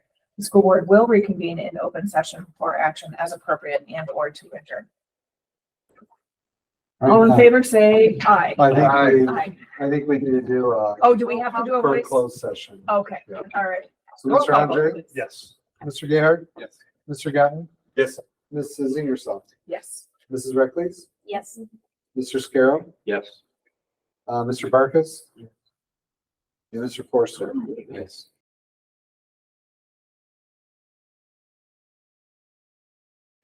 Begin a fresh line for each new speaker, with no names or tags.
The school board will reconvene in open session for action as appropriate and or to adjourn. All in favor, say aye.
I think we,
Aye.
I think we need to do a,
Oh, do we have to do a
for a
voice? Oh,
closed session.
Okay,
Yeah.
all right.
So Mr. Andre,
Yes.
Mr. Gayheart,
Yes.
Mr. Gatton,
Yes.
Mrs. Ingersoll,
Yes.
Mrs. Reckles,
Yes.
Mr. Scarrow,
Yes.
uh, Mr. Barkus, and Mr. Forster.
Yes.